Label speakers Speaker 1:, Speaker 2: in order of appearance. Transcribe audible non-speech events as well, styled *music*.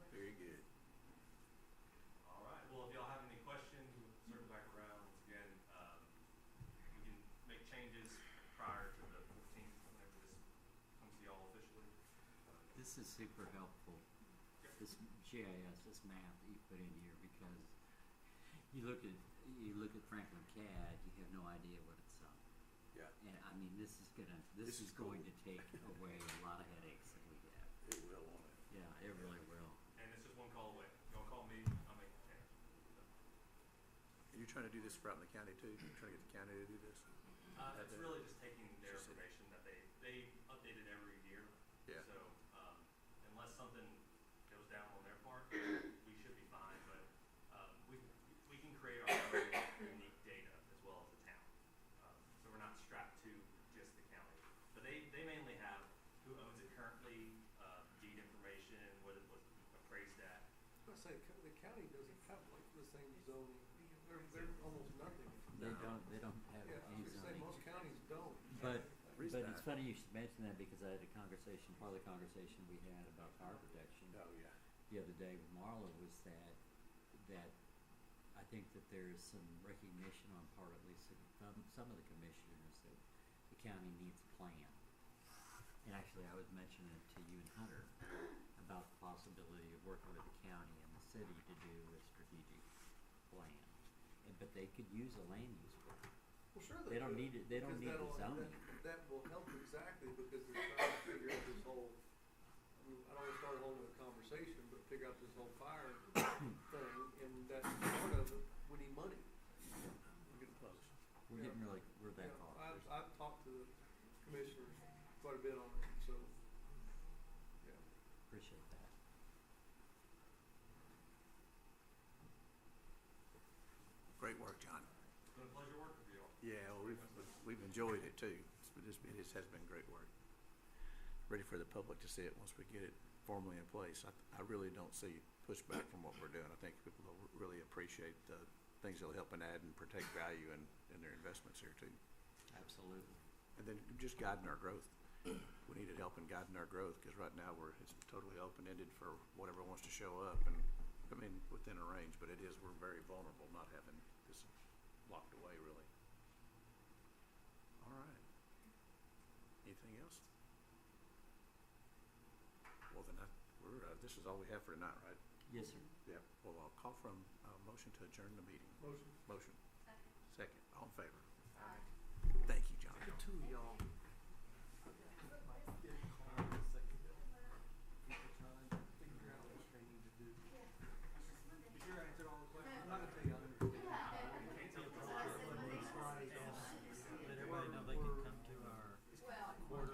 Speaker 1: um,
Speaker 2: This is super helpful, this GIS, this map that you put in here, because you look at, you look at Franklin CAD, you have no idea what it's on.
Speaker 3: Yeah.
Speaker 2: And I mean, this is gonna,
Speaker 3: This
Speaker 2: this is
Speaker 3: is cool.
Speaker 2: going to take away a lot of headaches that we have.
Speaker 3: It will on it.
Speaker 2: Yeah, it really will.
Speaker 1: And it's just one call away. Y'all call me, I'll make the change.
Speaker 4: Are you trying to do this for out in the county too? You're trying to get the county to do this?
Speaker 1: Uh,
Speaker 4: Have
Speaker 1: it's
Speaker 4: the-
Speaker 1: really just taking their
Speaker 4: Just a-
Speaker 1: information that they, they update it every year.
Speaker 4: Yeah.
Speaker 1: So, um, unless something goes down on their part, we should be fine, but, um, we, we can create our own unique data as well as the town. Um, So we're not strapped to just the county. But they, they mainly have who owns it currently, uh, deed information, what it was appraised at.
Speaker 5: I say, co- the county doesn't have like the same zoning, they're, they're almost nothing.
Speaker 2: They don't, they don't have
Speaker 5: Yeah, I
Speaker 2: any
Speaker 5: was gonna say,
Speaker 2: zoning.
Speaker 5: most counties don't.
Speaker 2: But,
Speaker 4: Reason
Speaker 2: but it's
Speaker 4: I-
Speaker 2: funny you should mention that, because I had a conversation, part of the conversation we had about fire protection
Speaker 4: Oh, yeah.
Speaker 2: the other day with Marla was that, that I think that there is some recognition on part at least of some, some of the commissioners that the county needs a plan. And actually, I was mentioning it to you and Hunter about the possibility of working with the county and the city to do a strategic plan. And- But they could use a land use plan.
Speaker 5: Well, sure
Speaker 2: They
Speaker 5: they do.
Speaker 2: don't need it- they don't need
Speaker 5: because
Speaker 2: the
Speaker 5: that'll-
Speaker 2: zoning.
Speaker 5: that- That will help exactly because they're trying to figure out this whole, I mean, I don't wanna start a whole new conversation, but figure out this whole fire *coughs* thing and that part of it, we need money.
Speaker 4: We're getting close.
Speaker 2: We're
Speaker 5: Yeah.
Speaker 2: getting really, we're that
Speaker 5: You know,
Speaker 2: far.
Speaker 5: I've, I've talked to the commissioners quite a bit on it, so, yeah.
Speaker 2: Appreciate that.
Speaker 4: Great work, John.
Speaker 1: It's been a pleasure working with you all.
Speaker 4: Yeah, well, we've, we've- we've enjoyed it too. It's been- This, it has been great work. Ready for the public to see it once we get it formally in place. I, I really don't see pushback from what we're doing. I think people will really appreciate the things that'll help and add and protect value in, in their investments here too.
Speaker 2: Absolutely.
Speaker 4: And then just guiding our growth. We needed help in guiding our growth, because right now we're, it's totally open-ended for whatever wants to show up and, I mean, within a range, but it is, we're very vulnerable not having this locked away really. All right. Anything else? Well, then I, we're, uh, this is all we have for tonight, right?
Speaker 2: Yes, sir.
Speaker 4: Yep. Well, I'll call for a, a motion to adjourn the meeting.
Speaker 5: Motion.
Speaker 4: Motion. Second. Second. All in favor?
Speaker 5: Aye.
Speaker 4: Thank you, John.
Speaker 5: Good two of y'all.